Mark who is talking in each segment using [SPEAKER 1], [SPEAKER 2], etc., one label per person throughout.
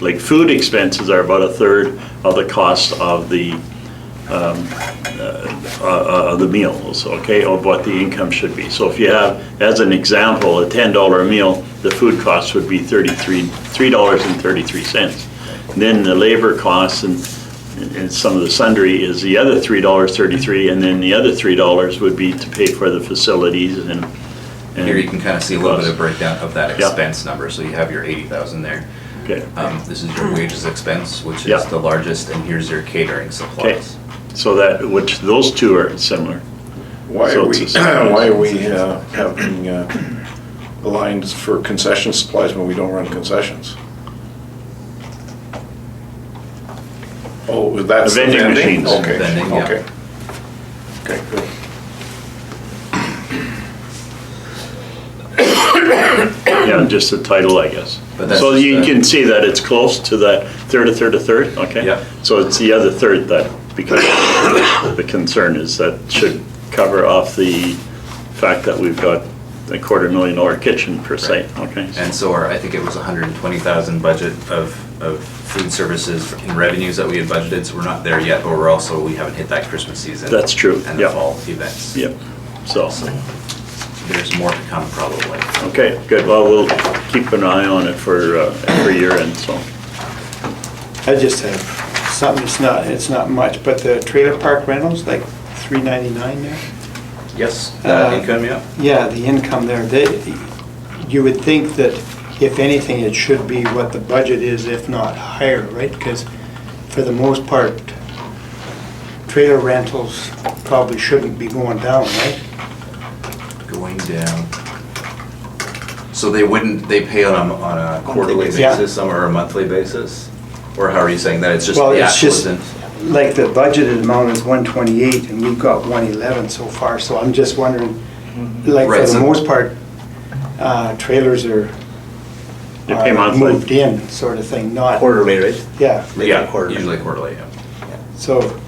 [SPEAKER 1] Like, food expenses are about a third of the cost of the, um, uh, uh, of the meals, okay, of what the income should be. So if you have, as an example, a $10 meal, the food cost would be 33, $3.33. Then the labor costs and, and some of the sundry is the other $3.33, and then the other $3 would be to pay for the facilities and. and-
[SPEAKER 2] Here you can kind of see a little bit of breakdown of that
[SPEAKER 1] Yeah.
[SPEAKER 2] expense number, so you have your eighty thousand there.
[SPEAKER 1] Okay.
[SPEAKER 2] Um, this is your wages expense, which
[SPEAKER 1] Yeah.
[SPEAKER 2] is the largest, and here's your catering supplies.
[SPEAKER 1] So that, which, those two are similar.
[SPEAKER 3] Why
[SPEAKER 1] So
[SPEAKER 3] are
[SPEAKER 1] it's
[SPEAKER 3] we,
[SPEAKER 1] a separate-
[SPEAKER 3] why are we uh, having uh, lines for concession supplies when we don't run concessions? Oh, that's the
[SPEAKER 1] Vending
[SPEAKER 3] vending?
[SPEAKER 1] machines.
[SPEAKER 3] Okay,
[SPEAKER 2] Vending, yeah.
[SPEAKER 3] okay. Okay, good.
[SPEAKER 1] Yeah, just the title, I guess.
[SPEAKER 2] But that's
[SPEAKER 1] So you
[SPEAKER 2] just, uh,
[SPEAKER 1] can see that it's close to that third, a third, a third, okay?
[SPEAKER 2] Yeah.
[SPEAKER 1] So it's the other third that, because the concern is that should cover off the fact that we've got a quarter million dollar kitchen per se, okay?
[SPEAKER 2] And so our, I think it was hundred and twenty thousand budget of, of food services and revenues that we had budgeted, so we're not there yet, but we're also, we haven't hit that Christmas season.
[SPEAKER 1] That's true,
[SPEAKER 2] And
[SPEAKER 1] yeah.
[SPEAKER 2] the fall events.
[SPEAKER 1] Yep, so,
[SPEAKER 2] So there's more to come probably.
[SPEAKER 1] okay, good, well, we'll keep an eye on it for, uh, every year and so.
[SPEAKER 4] I just have something, it's not, it's not much, but the trailer park rentals, like three ninety-nine there?
[SPEAKER 2] Yes,
[SPEAKER 4] Uh,
[SPEAKER 2] uh, income, yeah.
[SPEAKER 4] Yeah, the income there, they, you would think that if anything, it should be what the budget is, if not higher, right? Because for the most part, trailer rentals probably shouldn't be going down, right?
[SPEAKER 2] Going down. So they wouldn't, they pay on a, on a quarterly
[SPEAKER 4] basis. Yeah.
[SPEAKER 2] basis, some are a monthly basis? Or how are you saying that? It's just
[SPEAKER 4] Well,
[SPEAKER 2] the
[SPEAKER 4] it's
[SPEAKER 2] actual
[SPEAKER 4] just,
[SPEAKER 2] isn't?
[SPEAKER 4] like, the budgeted amount is one twenty-eight, and we've got one eleven so far, so I'm just wondering,
[SPEAKER 5] Mm-hmm.
[SPEAKER 4] like, for
[SPEAKER 2] Right,
[SPEAKER 4] the
[SPEAKER 2] so-
[SPEAKER 4] most part, uh, trailers are
[SPEAKER 1] They pay
[SPEAKER 4] are
[SPEAKER 1] monthly.
[SPEAKER 4] Moved in, sort of thing, not,
[SPEAKER 5] Quarterly, right?
[SPEAKER 4] yeah,
[SPEAKER 5] Maybe
[SPEAKER 2] Yeah,
[SPEAKER 5] quarterly.
[SPEAKER 2] Usually quarterly, yeah.
[SPEAKER 4] so,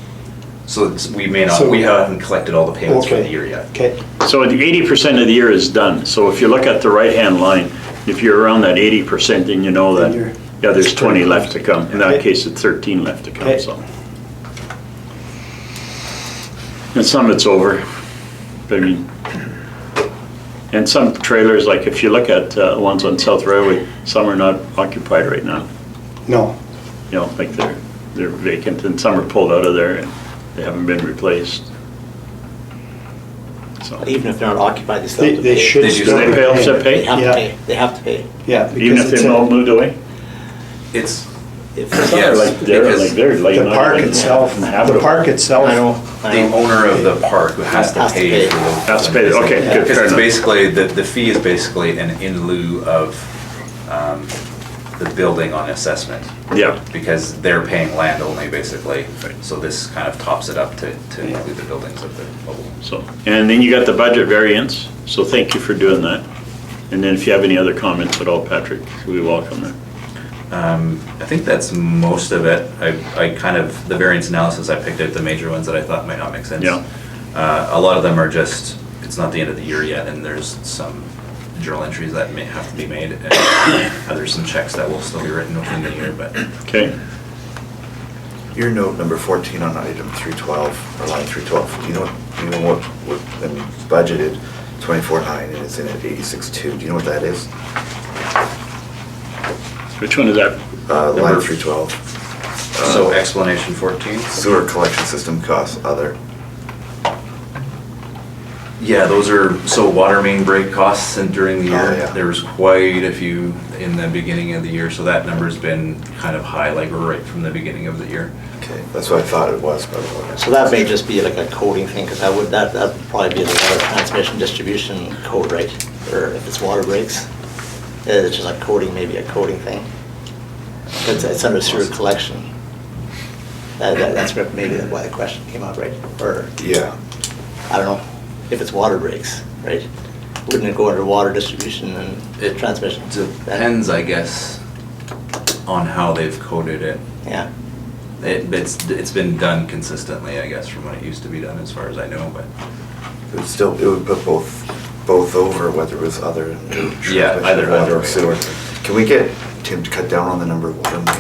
[SPEAKER 2] So it's- we may not,
[SPEAKER 4] So-
[SPEAKER 2] we haven't collected all the payments for the year
[SPEAKER 4] okay,
[SPEAKER 2] yet.
[SPEAKER 4] okay,
[SPEAKER 1] So the eighty percent of the year is done, so if you look at the right-hand line, if you're around that eighty percent, then you know that,
[SPEAKER 4] Then you're-
[SPEAKER 1] yeah, there's twenty left to come, in that
[SPEAKER 4] Okay.
[SPEAKER 1] case, it's thirteen left to come,
[SPEAKER 4] Okay.
[SPEAKER 1] so. And some it's over, I mean, and some trailers, like if you look at uh, ones on South Railway, some are not occupied right now,
[SPEAKER 4] no,
[SPEAKER 1] you know, like they're, they're vacant, and some are pulled out of there, and they haven't been replaced. So,
[SPEAKER 5] But even if they're not occupied, they still
[SPEAKER 4] they,
[SPEAKER 5] have to
[SPEAKER 4] they
[SPEAKER 5] pay.
[SPEAKER 4] should
[SPEAKER 2] They do.
[SPEAKER 4] still
[SPEAKER 1] Do they
[SPEAKER 4] be
[SPEAKER 1] pay off
[SPEAKER 4] paying.
[SPEAKER 1] their pay?
[SPEAKER 5] They
[SPEAKER 4] Yeah.
[SPEAKER 5] have to pay, they have to pay.
[SPEAKER 4] Yeah.
[SPEAKER 1] even
[SPEAKER 4] because
[SPEAKER 1] if
[SPEAKER 4] it's
[SPEAKER 1] they've
[SPEAKER 4] a-
[SPEAKER 1] all moved away?
[SPEAKER 2] It's,
[SPEAKER 5] If
[SPEAKER 1] Yeah, like
[SPEAKER 2] Yes,
[SPEAKER 1] they're, like
[SPEAKER 2] because
[SPEAKER 1] they're like.
[SPEAKER 4] The
[SPEAKER 1] not
[SPEAKER 4] park
[SPEAKER 1] even
[SPEAKER 4] itself, the
[SPEAKER 1] habitable.
[SPEAKER 4] park itself.
[SPEAKER 5] I know,
[SPEAKER 2] the
[SPEAKER 5] I know.
[SPEAKER 2] owner of the park who has to
[SPEAKER 5] Has to
[SPEAKER 2] pay
[SPEAKER 5] pay.
[SPEAKER 2] for the.
[SPEAKER 1] Has to pay, okay, good,
[SPEAKER 2] Because
[SPEAKER 1] fair
[SPEAKER 2] it's
[SPEAKER 1] enough.
[SPEAKER 2] basically, the, the fee is basically an in lieu of, um, the building on assessment.
[SPEAKER 1] Yeah,
[SPEAKER 2] Because they're paying land only basically.
[SPEAKER 1] Right.
[SPEAKER 2] So this kind of tops it up to, to include the buildings of the mobile.
[SPEAKER 1] so, and then you got the budget variance, so thank you for doing that. And then if you have any other comments at all, Patrick, we welcome them.
[SPEAKER 2] Um, I think that's most of it. I, I kind of, the variance analysis, I picked out the major ones that I thought might not make sense.
[SPEAKER 1] Yeah.
[SPEAKER 2] Uh, a lot of them are just, it's not the end of the year yet, and there's some journal entries that may have to be made, and uh, there's some checks that will still be written within the year, but
[SPEAKER 1] Okay,
[SPEAKER 6] Your note number 14 on item 312, or line 312, do you know, what- do you know what, what, I mean, it's budgeted 24.9 and it's in at 86.2, do you know what that is?
[SPEAKER 1] which one is that?
[SPEAKER 6] Uh, Line
[SPEAKER 2] Number-
[SPEAKER 6] 312,
[SPEAKER 2] So explanation 14?
[SPEAKER 6] sewer collection system costs other.
[SPEAKER 2] Yeah, those are, so water main break costs and during the
[SPEAKER 6] Oh,
[SPEAKER 2] year,
[SPEAKER 6] yeah.
[SPEAKER 2] there was quite a few in the beginning of the year, so that number's been kind of high, like right from the beginning of the year.
[SPEAKER 6] Okay, that's what I thought it was, but it wasn't.
[SPEAKER 5] So that may just be like a coding thing, because that would, that, that'd probably be the water transmission distribution code, right? Or if it's water breaks, Uh, it's just like coding, maybe a coding thing. It's, it's under sewer collection. That, that- that's where maybe why the question came up, right? Or,
[SPEAKER 6] Yeah,
[SPEAKER 5] I don't know, if it's water breaks, right? Wouldn't it go under water distribution and transmission?
[SPEAKER 2] Depends, I guess, on how they've coded it.
[SPEAKER 5] Yeah.
[SPEAKER 2] It, it's, it's been done consistently, I guess, from when it used to be done, as far as I know, but
[SPEAKER 6] it would still, it would put both, both over, whether it was other. and-
[SPEAKER 2] Yeah, either- either
[SPEAKER 6] Water or
[SPEAKER 2] way.
[SPEAKER 6] sewer. Can we get, Tim, to cut down on the number of water mains